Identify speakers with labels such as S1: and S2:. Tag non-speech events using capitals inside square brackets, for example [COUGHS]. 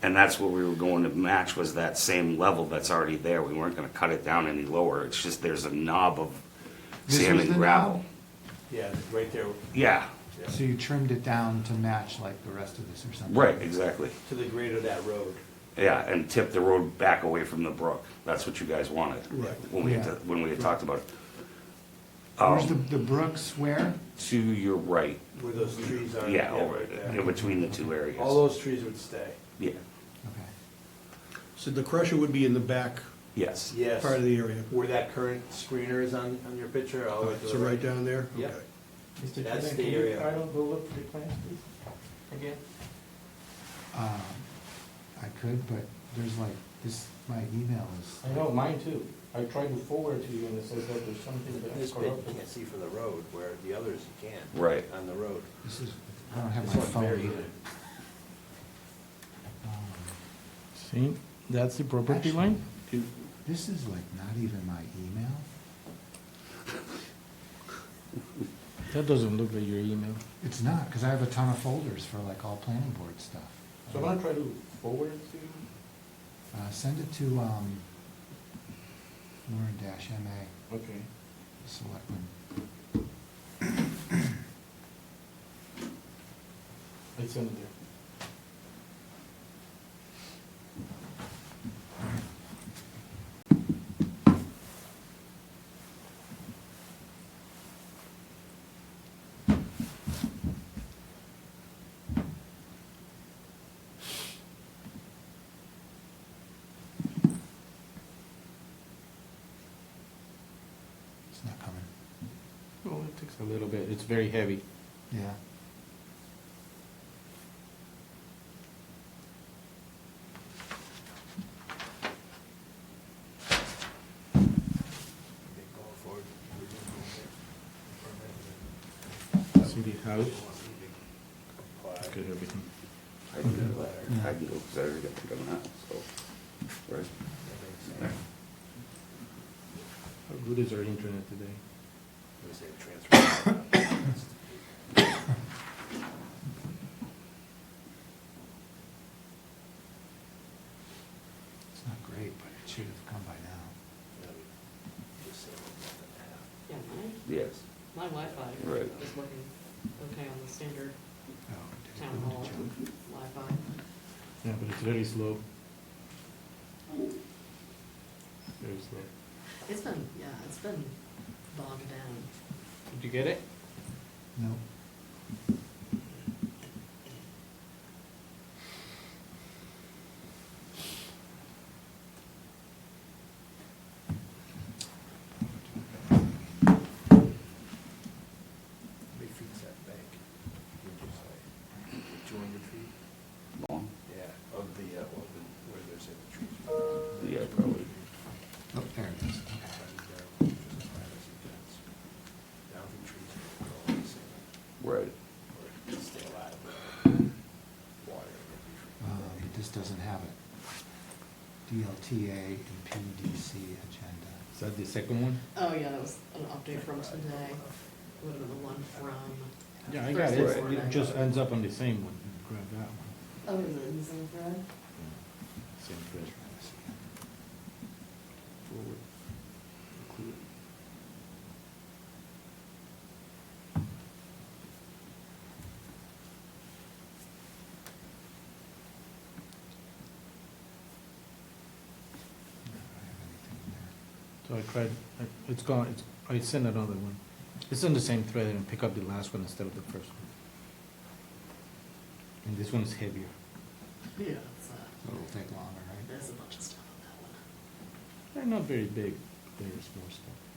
S1: And that's what we were going to match was that same level that's already there. We weren't gonna cut it down any lower. It's just there's a knob of
S2: This
S1: sand
S2: was
S1: and
S2: the
S1: gravel.
S2: knob?
S3: Yeah, right there,
S1: Yeah,
S3: yeah,
S2: So you trimmed it down to match like the rest of this or something?
S1: right, exactly.
S3: to the grade of that road.
S1: Yeah, and tip the road back away from the brook. That's what you guys wanted.
S3: Right.
S1: When we,
S2: Yeah.
S1: had- when we had talked about it. Um,
S2: Where's the, the Brooks where?
S1: To your right,
S3: Where those trees are.
S1: yeah, over,
S3: right there.
S1: in between the two areas.
S3: All those trees would stay,
S1: Yeah,
S2: Okay.
S4: So the crusher would be in the back
S1: yes.
S3: yes.
S4: part of the area.
S3: Where that current screener is on, on your picture, all the way Oh, to the
S4: Uh, So right down there?
S3: Yeah.
S4: Okay.
S5: Mr.
S3: That's
S5: Chairman,
S3: the
S5: can you,
S3: area.
S5: I don't go look for the plans, please? Again?
S2: Um, I could, but there's like, this, my email is,
S5: I know, mine too. I tried to forward to you and it says that there's something
S3: But
S5: that
S3: This
S5: is
S3: bit you
S5: corrupted.
S3: can't see from the road, where the others you can.
S1: Right.
S3: On the road.
S2: this is, I don't have
S3: This
S2: my
S3: one's very
S2: phone
S3: good.
S2: either. Um,
S6: See, that's the property line.
S2: This is like not even my email.
S6: That doesn't look like your email.
S2: It's not, because I have a ton of folders for like all planning board stuff.
S5: So I'm gonna try to forward it to you.
S2: Uh, send it to, um, Warren dash MA,
S5: Okay.
S2: selectman.
S5: I send it there.
S2: It's not coming.
S5: Well, it takes
S6: A little bit. It's very heavy.
S2: Yeah.
S3: They go forward.
S6: See the house? Look at
S3: Apply.
S6: everything.
S1: I can do that. I can go, because I already got the gun out, so, right?
S3: That makes sense.
S6: How good is our internet today?
S3: It was
S4: [COUGHS]
S3: a transfer.
S2: It's not great, but it should have come by now.
S7: Yeah, my,
S1: Yes.
S7: my Wi-Fi
S1: Right.
S7: is working okay on the standard
S2: Oh, did it
S7: town
S2: go into
S7: hall
S2: junk?
S7: Wi-Fi.
S6: Yeah, but it's very slow. Very slow.
S7: It's been, yeah, it's been bogged down.
S6: Did you get it?
S2: No.
S3: How many feet's that bank? Would you say? Two hundred feet?
S1: Long?
S3: Yeah, of the, uh, of the, where there's any trees.
S1: Yeah, probably.
S2: Oh, there it is.
S3: Down the trees, all the same,
S1: Right.
S3: or to stay alive, water.
S2: Uh, But this doesn't have it. DLTA and PDC agenda.
S6: Is that the second one?
S7: Oh, yeah, that was an update from today. Would have been the one from.
S6: Yeah, I got it.
S7: Thursday
S6: It's- It
S7: morning.
S6: just ends up on the same one. Grab that one.
S7: Oh, is it in the same thread?
S6: Same treasure. Forward. Include.
S2: I don't have anything there.
S6: So I tried, I- it's gone, it's, I sent another one. It's in the same thread and pick up the last one instead of the first one. And this one is heavier.
S7: Yeah. it's, uh,
S2: So it'll take longer, right?
S7: There's a bunch of stuff on that one.
S6: Eh, They're not very big, they're small stuff.